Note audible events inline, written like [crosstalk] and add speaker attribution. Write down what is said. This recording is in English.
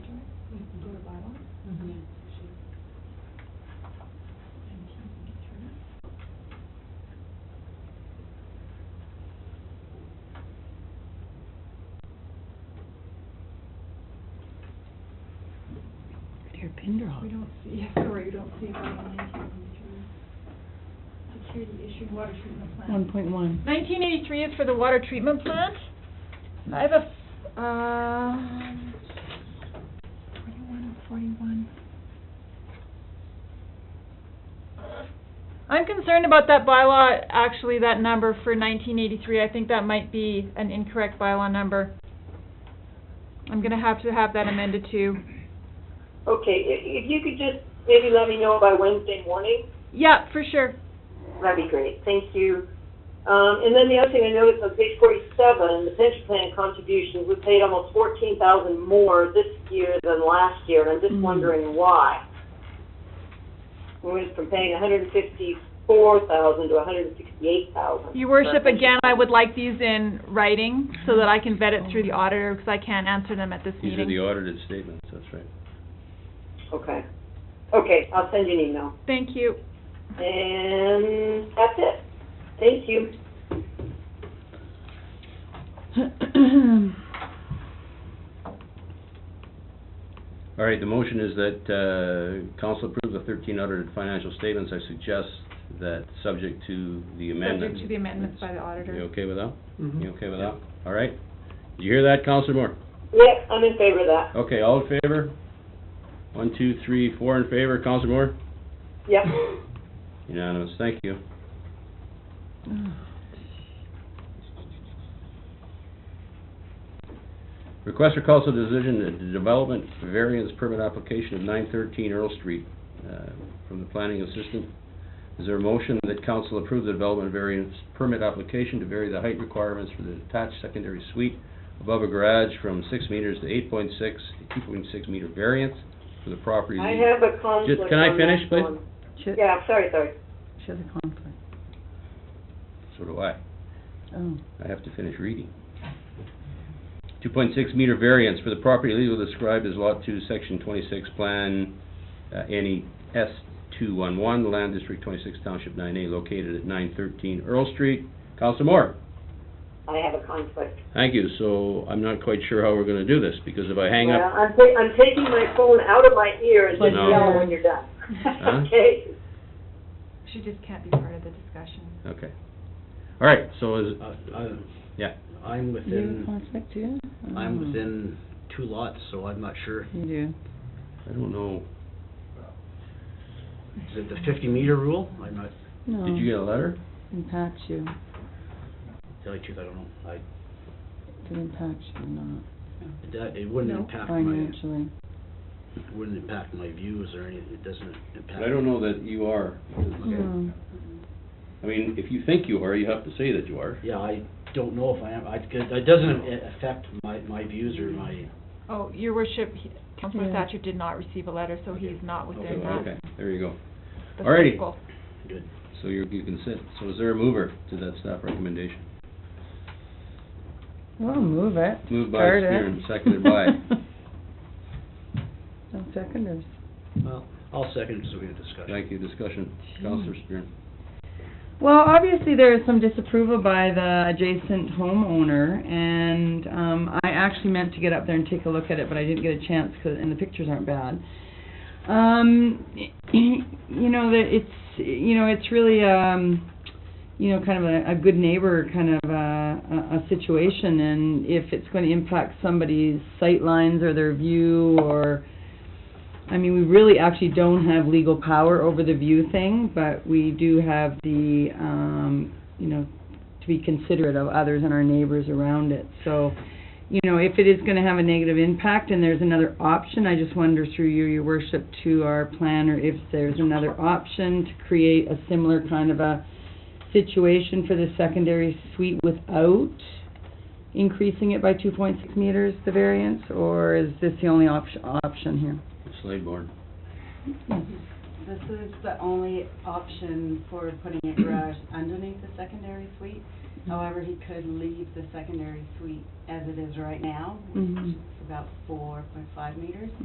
Speaker 1: here, Pinderhook.
Speaker 2: We don't see, [laughs] yeah, sorry, you don't see it on the 1983. Security issued water treatment plant.
Speaker 1: One point one.
Speaker 2: Nineteen eighty-three is for the water treatment plant. I have a, f- um, twenty-one or forty-one. I'm concerned about that bylaw, actually, that number for nineteen eighty-three. I think that might be an incorrect bylaw number. I'm gonna have to have that amended too.
Speaker 3: Okay, i- if you could just maybe let me know by Wednesday morning,
Speaker 2: Yeah, for sure.
Speaker 3: that'd be great. Thank you. Um, and then the other thing I noticed on page forty-seven, the pension plan contributions, we paid almost fourteen thousand more this year than last year, and I'm just
Speaker 2: Mm-hmm.
Speaker 1: Mhm.
Speaker 3: wondering why. We went from paying hundred and fifty-four thousand to hundred and sixty-eight thousand.
Speaker 2: Your worship, again, I would like these in writing so that I can vet it through the auditor because I can't answer them at this
Speaker 4: These are
Speaker 2: meeting.
Speaker 4: the audited statements, that's right.
Speaker 3: Okay. Okay, I'll send you an email.
Speaker 2: Thank you.
Speaker 3: And that's it. Thank you.
Speaker 4: All right, the motion is that uh, council approve the 13 audited financial statements. I suggest that, subject to the amendment.
Speaker 2: Subject to the amendments by the auditor.
Speaker 4: You okay with that?
Speaker 5: Mhm.
Speaker 4: You okay with that? All right. Did you hear that, Counselor Moore?
Speaker 3: Yeah, I'm in favor of that.
Speaker 4: Okay, all in favor? One, two, three, four in favor. Counselor Moore?
Speaker 3: Yep.
Speaker 2: [laughs]
Speaker 4: Unanimous, thank you. Request for council decision, the development variance permit application of nine thirteen Earl Street, uh, from the planning assistant. Is there a motion that council approve the development variance permit application to vary the height requirements for the attached secondary suite above a garage from six meters to eight point six, two point six meter variance for the property?
Speaker 3: I have a conflict
Speaker 4: can I
Speaker 3: on
Speaker 4: finish,
Speaker 3: that
Speaker 4: please?
Speaker 3: one.
Speaker 1: Should,
Speaker 3: Yeah, I'm sorry, sorry.
Speaker 1: should the conflict,
Speaker 4: So do I.
Speaker 1: oh.
Speaker 4: I have to finish reading. Two point six meter variance for the property legally described as lot two, section twenty-six, plan, uh, NE S two one one, land district twenty-six, township nine A, located at nine thirteen Earl Street. Counselor Moore?
Speaker 3: I have a conflict.
Speaker 4: Thank you, so I'm not quite sure how we're gonna do this, because if I hang
Speaker 3: Well,
Speaker 4: up,
Speaker 3: I'm ta- I'm taking my phone out of my ear and
Speaker 1: But
Speaker 3: just yell
Speaker 1: no.
Speaker 3: when you're done.
Speaker 4: Huh?
Speaker 3: [laughs] Okay?
Speaker 2: She just can't be part of the discussion.
Speaker 4: okay. All right, so is,
Speaker 5: I- I-
Speaker 4: Yeah.
Speaker 5: Uh, I'm
Speaker 1: Do you have a
Speaker 5: within,
Speaker 1: conflict too?
Speaker 5: I'm
Speaker 1: Oh.
Speaker 5: within two lots, so I'm not sure.
Speaker 1: You do.
Speaker 4: I don't know,
Speaker 5: Is it the fifty meter rule? I'm not,
Speaker 1: No.
Speaker 4: did you get a letter?
Speaker 1: Impacts you.
Speaker 5: tell you the truth, I don't know. I,
Speaker 1: Did impact you or not
Speaker 5: it do- it wouldn't
Speaker 2: No.
Speaker 5: impact my,
Speaker 1: financially?
Speaker 5: it wouldn't impact my views or anything. It doesn't impact.
Speaker 4: I don't know that you are.
Speaker 1: No.
Speaker 4: I mean, if you think you are, you have to say that you are.
Speaker 5: Yeah, I don't know if I am. I, it doesn't a- affect my, my views or my,
Speaker 2: Oh, your worship, he- Councilor
Speaker 1: Yeah.
Speaker 2: Thatcher did not receive a letter, so he's not
Speaker 4: So,
Speaker 2: within that.
Speaker 4: Okay, there you go.
Speaker 2: the
Speaker 4: Alrighty.
Speaker 2: circle.
Speaker 5: good.
Speaker 4: So you, you can sit. So is there a mover to that staff recommendation?
Speaker 1: Well, move it.
Speaker 4: Moved by
Speaker 1: Start it.
Speaker 4: Spear and
Speaker 1: [laughs]
Speaker 4: seconded by- [laughs]
Speaker 1: No seconders.
Speaker 5: Well, I'll second it so we can discuss.
Speaker 4: Thank you, discussion. Counselor Spear.
Speaker 1: Well, obviously, there is some disapproval by the adjacent homeowner, and, um, I actually meant to get up there and take a look at it, but I didn't get a chance, 'cause- and the pictures aren't bad. Um, you know, that it's, you know, it's really, um, you know, kind of a, a good neighbor kind of a, a, a situation, and if it's gonna impact somebody's sight lines or their view, or, I mean, we really actually don't have legal power over the view thing, but we do have the, um, you know, to be considerate of others and our neighbors around it. So, you know, if it is gonna have a negative impact and there's another option, I just wonder through you, your worship, to our planner, if there's another option to create a similar kind of a situation for the secondary suite without increasing it by two point six meters, the variance, or is this the only option, option here?
Speaker 4: Slade board.
Speaker 6: This is the only option for putting a garage underneath the secondary suite. However, he could leave the secondary suite as it is right now, which
Speaker 1: Mhm.
Speaker 6: is about four point five meters.